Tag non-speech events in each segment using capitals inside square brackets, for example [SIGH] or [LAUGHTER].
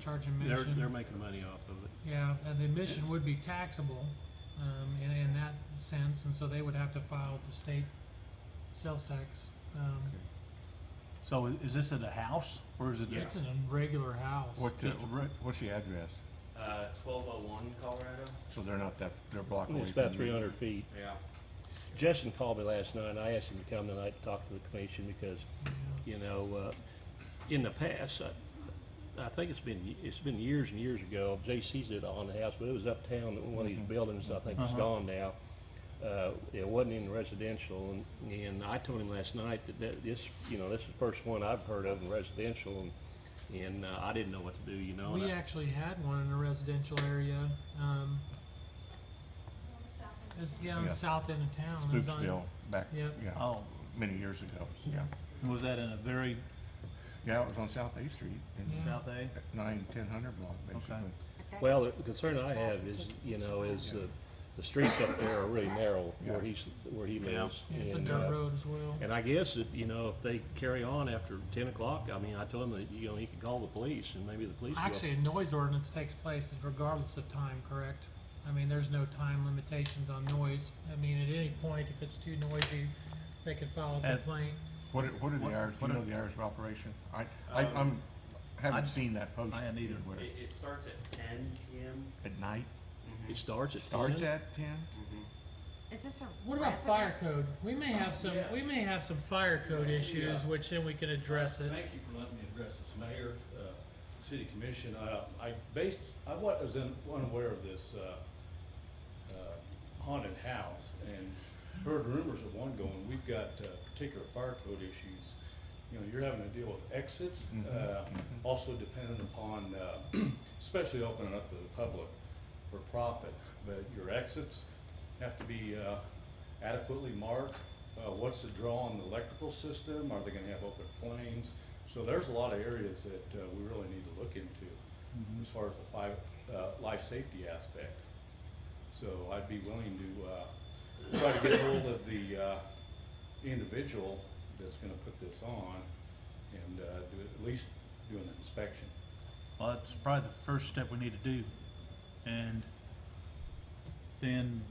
charge admission. They're, they're making money off of it. Yeah, and the admission would be taxable, um, in, in that sense, and so they would have to file with the state sales tax. Um, So i- is this at a house or is it? a- it's in a regular house. What, the- Just a brick? what's the address? Uh, twelve oh one Colorado? So they're not that, they're a block away It's from about you. three hundred feet. Yeah. Justin called me last night, and I asked him to come tonight to talk to the commission, because, Yeah. you know, uh, in the past, I, I think it's been, it's been years and years ago, J.C.'s did it on the house, but it was uptown, in one of these buildings, I think it's Uh-huh. gone now. Uh, it wasn't in residential, and, and I told him last night that, that this, you know, this is the first one I've heard of in residential, and, and uh, I didn't know what to do, you know. and We I- actually had one in a residential area, um, it's, yeah, on the Yeah. south end of town. It was on- Spoopsville, back, Yeah. yeah, Oh, many years ago, yeah. was that in a very Yeah, it was on South A Street, in Yeah. south A? nine, ten hundred block, basically. Well, the concern I have is, you know, is the, the streets up there are really narrow where Yeah. he's, where he Yeah. lives. Yeah, It's a and, uh, dirt road as well. And I guess that, you know, if they carry on after ten o'clock, I mean, I told him that, you know, he could call the police and maybe the police will. Actually, a noise ordinance takes place regardless of time, correct? I mean, there's no time limitations on noise. I mean, at any point, if it's too noisy, they can file a At- complaint. What, are- what are the What- hours, do you what know are- the hours of operation? I, I, Um, I'm, haven't I- seen that post. I hadn't either. anywhere. It, it starts at ten PM. At night, It starts at ten. starts at ten? Is this a? What about fire code? We may have some, we may have some fire code issues, Yeah. which then we can address it. Thank you for letting me address this, Mayor, uh, City Commission. Uh, I based, I was un- unaware of this uh, uh, haunted house and heard rumors of one going. We've got uh, particular fire code issues. You know, you're having to deal with exits, uh, also dependent upon, uh, especially opening up to the public for profit. But your exits have to be uh, adequately marked. Uh, What's the draw on the electrical system? Are they gonna have open flames? So there's a lot of areas that uh, we really need to look into as far as the five, uh, life safety aspect. So I'd be willing to uh, try to get hold of the uh, individual that's gonna put this on and uh, do, at least do an inspection. Well, that's probably the first step we need to do. And then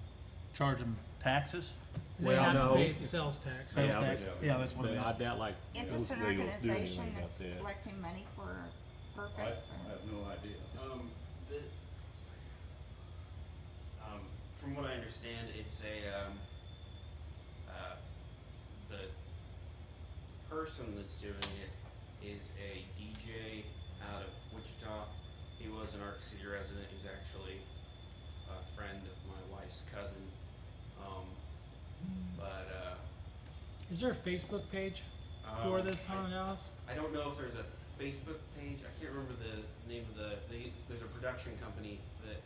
charge them taxes? They Well, have to no. pay the sales tax. Sales Yeah, but- tax? Yeah, that's what But it I is. doubt like. Is this Oakdale's an doing organization anything about that's that. collecting money for a I I purpose? or- have no idea. Um, the, um, from what I understand, it's a, um, uh, the person that's doing it is a DJ out of Wichita. He was an Arc City resident. He's actually a friend of my wife's cousin. Um, but, uh, Is there a Facebook page um, Uh, for this I- haunted house? I don't know if there's a Facebook page. I can't remember the name of the. They, there's a production company that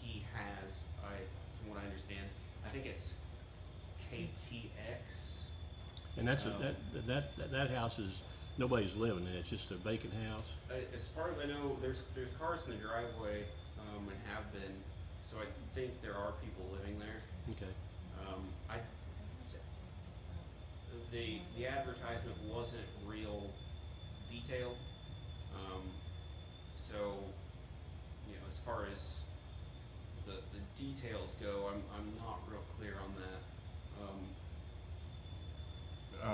he has. I, from what I understand, I think it's KTX. And that's, a- Oh. that, that, that, that house is, nobody's living in it, it's just a vacant house. Uh, as far as I know, there's there's cars in the driveway um, and have been. So I think there are people living there. Okay. Um, I, the the advertisement wasn't real detailed, um, so you know as far as the the details go, I'm I'm not real clear on that. Um,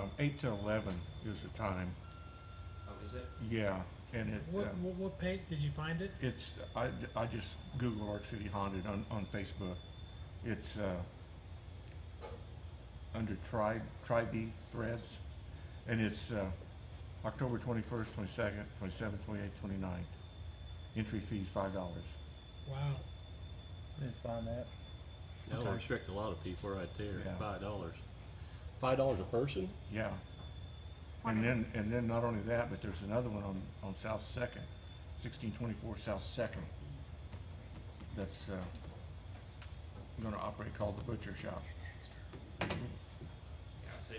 Um, eight to eleven is the time, oh, is it? yeah, and it, What, um, what, what page, did you find it? it's, I, I just Google Arc City Haunted on, on Facebook. It's, uh, under tribe, tribe threads, and it's, uh, October twenty-first, twenty-second, twenty-seventh, twenty-eighth, twenty-ninth. Entry fee's five dollars. Wow. Didn't find that. That'll Okay. restrict a lot of people right there, Yeah. five dollars. Five dollars a person? Yeah. And then, and then not only that, but there's another one on, on South Second, sixteen twenty-four South Second. That's, uh, gonna operate called the Butcher Shop. Yeah, it's a-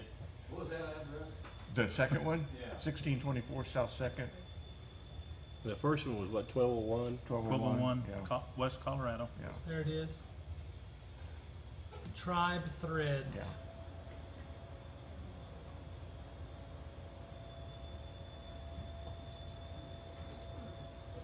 What was that address? The second [LAUGHS] one? Yeah. Sixteen twenty-four South Second, The first one was what, twelve oh one? twelve oh one. Twelve oh one, Yeah, Co- West Colorado. yeah. There it is. Tribe Threads.